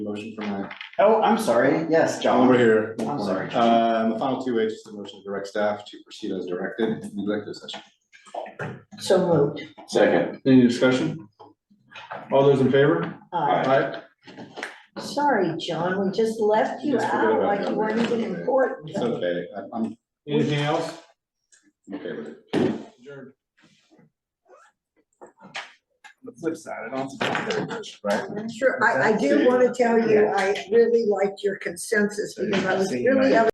Motion for my, oh, I'm sorry, yes, John. Over here. I'm sorry. Um, the final two H is the motion to direct staff to proceed as directed in the executive session. So moved. Second. Any discussion? All those in favor? Aye. Aye. Uh, Sorry, John, we just left you Just forget out about like you that. weren't even important. It's okay, I'm- I'm, anything else? I'm okay with it. Adjourned. The flip side, I don't have to talk very much, right? Sure, I, I do want to tell you, I really liked your consensus because I was really